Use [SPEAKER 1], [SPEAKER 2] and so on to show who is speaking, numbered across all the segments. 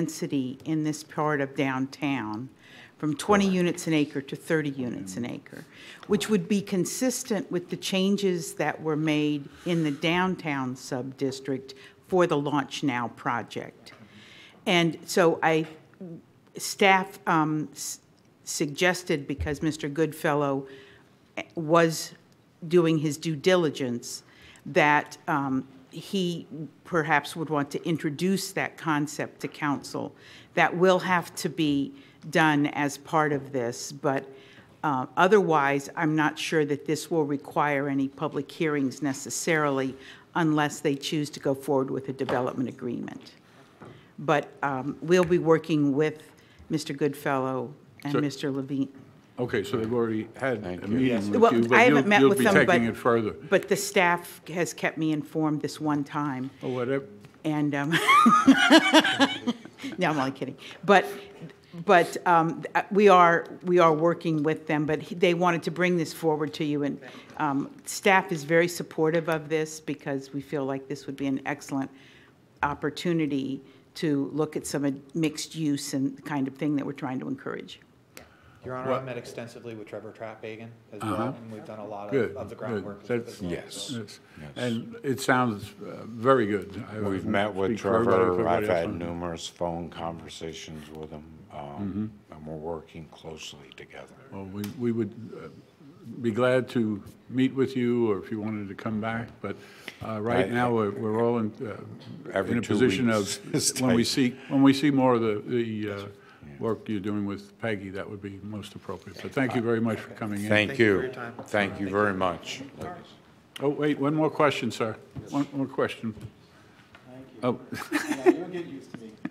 [SPEAKER 1] density in this part of downtown from 20 units an acre to 30 units an acre, which would be consistent with the changes that were made in the downtown sub-district for the Launch Now project. And so I, staff um, s- suggested, because Mr. Goodfellow was doing his due diligence, that um, he perhaps would want to introduce that concept to council. That will have to be done as part of this, but uh, otherwise, I'm not sure that this will require any public hearings necessarily unless they choose to go forward with a development agreement. But um, we'll be working with Mr. Goodfellow and
[SPEAKER 2] So-
[SPEAKER 1] Mr. Levine.
[SPEAKER 2] Okay, so they've already had a meeting with you,
[SPEAKER 1] Well, I
[SPEAKER 2] but
[SPEAKER 1] haven't
[SPEAKER 2] you'll,
[SPEAKER 1] met
[SPEAKER 2] you'll
[SPEAKER 1] with
[SPEAKER 2] be
[SPEAKER 1] them, but.
[SPEAKER 2] taking it further.
[SPEAKER 1] But the staff has kept me informed this one time,
[SPEAKER 2] Or Oh, whatever,
[SPEAKER 1] and, um, no, I'm only kidding. But, but um, th- we are, we are working with them, but he- they wanted to bring this forward to you, and um, staff is very supportive of this because we feel like this would be an excellent opportunity to look at some uh, mixed use and the kind of thing that we're trying to encourage.
[SPEAKER 3] Your Honor,
[SPEAKER 2] What-
[SPEAKER 3] I've met extensively with Trevor Trapagan as well, and we've done a lot
[SPEAKER 2] good,
[SPEAKER 3] of, of the groundwork.
[SPEAKER 2] good.
[SPEAKER 3] as-
[SPEAKER 2] That's-
[SPEAKER 3] as well.
[SPEAKER 2] that's- And it sounds uh, very good. I
[SPEAKER 4] We've
[SPEAKER 2] won't
[SPEAKER 4] met with
[SPEAKER 2] speak for everybody,
[SPEAKER 4] Trevor,
[SPEAKER 2] for
[SPEAKER 4] I've
[SPEAKER 2] everybody
[SPEAKER 4] had
[SPEAKER 2] else.
[SPEAKER 4] numerous phone conversations with him, um, and we're working closely together.
[SPEAKER 2] Well, we, we would uh, be glad to meet with you, or if you wanted to come back, but uh,
[SPEAKER 4] I-
[SPEAKER 2] right now, we're, we're all in, uh,
[SPEAKER 4] Every
[SPEAKER 2] in a
[SPEAKER 4] two
[SPEAKER 2] position of,
[SPEAKER 4] weeks is
[SPEAKER 2] when we
[SPEAKER 4] tight.
[SPEAKER 2] see, when we see more of the, the uh, work you're doing with Peggy, that would be most appropriate. But thank you very much for coming in.
[SPEAKER 4] Thank
[SPEAKER 3] you for
[SPEAKER 4] you.
[SPEAKER 3] your time.
[SPEAKER 4] Thank you very much. ladies.
[SPEAKER 2] Oh, wait, one more question, sir. One more question. Oh.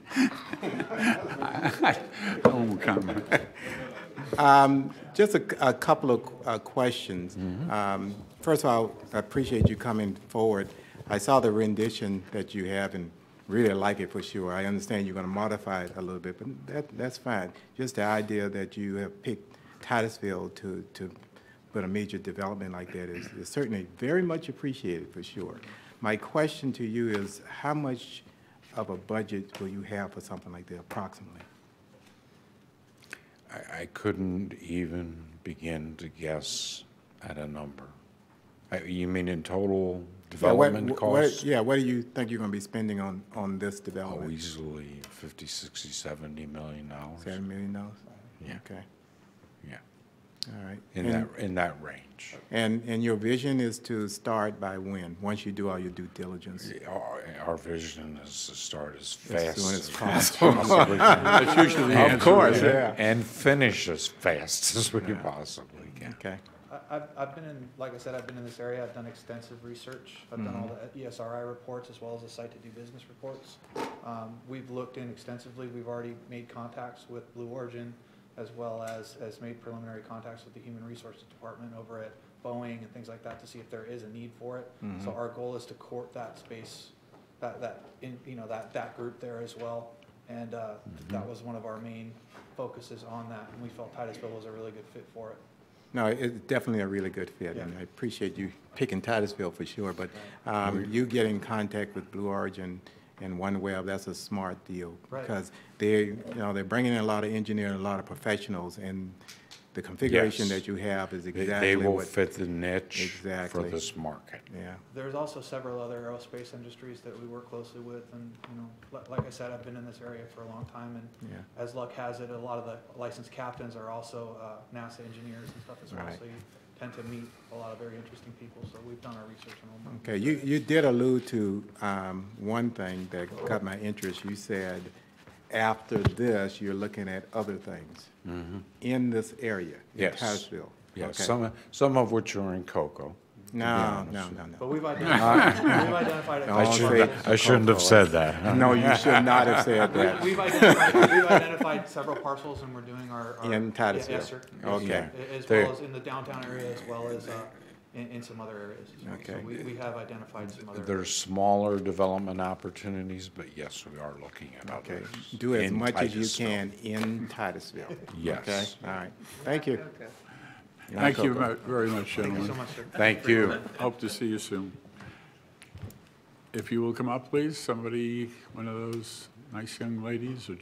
[SPEAKER 2] I won't Oh. comment.
[SPEAKER 5] Just a, c- a couple of uh, questions. Um, First of all, I appreciate you coming forward. I saw the rendition that you have and really like it for sure. I understand you're going to modify it a little bit, but that, that's fine. Just the idea that you have picked Titusville to, to put a major development like that is is certainly very much appreciated for sure. My question to you is, how much of a budget will you have for something like that approximately?
[SPEAKER 4] I, I couldn't even begin to guess at a number. Uh, You mean in total
[SPEAKER 5] Yeah, what-
[SPEAKER 4] development
[SPEAKER 5] wh- what-
[SPEAKER 4] cost?
[SPEAKER 5] Yeah, what do you think you're going to be spending on, on this
[SPEAKER 4] Oh,
[SPEAKER 5] development?
[SPEAKER 4] easily 50, 60, 70 million dollars.
[SPEAKER 5] Seven million dollars?
[SPEAKER 4] Yeah.
[SPEAKER 5] Okay,
[SPEAKER 4] Yeah,
[SPEAKER 5] all right.
[SPEAKER 4] in
[SPEAKER 5] And-
[SPEAKER 4] that, in that range.
[SPEAKER 5] And, and your vision is to start by when, once you do all your due diligence?
[SPEAKER 4] Our, our vision is to start as fast
[SPEAKER 5] soon as
[SPEAKER 4] as possibly can.
[SPEAKER 2] That's usually the answer.
[SPEAKER 4] Of course,
[SPEAKER 2] yeah.
[SPEAKER 5] yeah.
[SPEAKER 4] and finish as fast as we possibly can.
[SPEAKER 5] Okay,
[SPEAKER 3] I- I've, I've been in, like I said, I've been in this area, I've done extensive research, I've done all the E ESRI reports as well as the site to do business reports. Um, We've looked in extensively, we've already made contacts with Blue Origin as well as, as made preliminary contacts with the Human Resources Department over at Boeing and things like that to see if there is a need for it. So our goal is to court that space, that, that, in- you know, that, that group there as well. And uh, that was one of our main focuses on that, and we felt Titusville was a really good fit for it.
[SPEAKER 5] no, it's definitely a really good fit, and I appreciate you picking Titusville for sure, but um, you get in contact with Blue Origin and OneWeb, that's a smart deal.
[SPEAKER 3] Right.
[SPEAKER 5] Because they, you know, they're bringing in a lot of engineers, a lot of professionals, and the configuration
[SPEAKER 4] Yes.
[SPEAKER 5] that you have is
[SPEAKER 4] They-
[SPEAKER 5] exactly what.
[SPEAKER 4] They will fit the niche for
[SPEAKER 5] Exactly.
[SPEAKER 4] this market.
[SPEAKER 5] Yeah.
[SPEAKER 3] There's also several other aerospace industries that we work closely with, and, you know, li- like I said, I've been in this area for a long time, and
[SPEAKER 5] Yeah.
[SPEAKER 3] as luck has it, a lot of the licensed captains are also uh, NASA engineers and stuff as well,
[SPEAKER 5] Right.
[SPEAKER 3] so you tend to meet a lot of very interesting people, so we've done our research on them.
[SPEAKER 5] Okay, you, you did allude to um, one thing that caught my interest. You said, after this, you're looking at other things in this area, in
[SPEAKER 4] Mm-hmm. Yes.
[SPEAKER 5] Titusville.
[SPEAKER 4] Yeah,
[SPEAKER 5] Okay.
[SPEAKER 4] some, some of which are in cocoa. to be
[SPEAKER 5] No,
[SPEAKER 4] honest.
[SPEAKER 5] no, no,
[SPEAKER 3] But
[SPEAKER 5] no.
[SPEAKER 3] we've identified, we've identified. a
[SPEAKER 5] No,
[SPEAKER 4] I
[SPEAKER 3] couple
[SPEAKER 5] I'll
[SPEAKER 3] of
[SPEAKER 5] say-
[SPEAKER 4] shouldn't,
[SPEAKER 3] these.
[SPEAKER 4] I shouldn't have said that, huh?
[SPEAKER 5] No, you should not have said that.
[SPEAKER 3] We've identified, we've identified several parcels, and we're doing our. our-
[SPEAKER 5] In Titusville.
[SPEAKER 3] Yes, sir. Yes,
[SPEAKER 5] Okay.
[SPEAKER 3] sir. A- As
[SPEAKER 4] There-
[SPEAKER 3] well as in the downtown area, as well as uh, in, in some other areas. as well. So
[SPEAKER 5] Okay.
[SPEAKER 3] we, we have identified some other.
[SPEAKER 4] There's smaller development opportunities, but yes, we are looking at
[SPEAKER 5] Okay,
[SPEAKER 4] others.
[SPEAKER 5] do as
[SPEAKER 4] in
[SPEAKER 5] much as you
[SPEAKER 4] Titusville.
[SPEAKER 5] can in Titusville. Okay,
[SPEAKER 4] Yes.
[SPEAKER 5] all right, thank you.
[SPEAKER 2] Thank you mu- very much,
[SPEAKER 3] Thank you
[SPEAKER 2] gentlemen.
[SPEAKER 3] so much, sir.
[SPEAKER 4] Thank you.
[SPEAKER 2] Hope to see you soon. If you will come up, please, somebody, one of those nice young ladies, a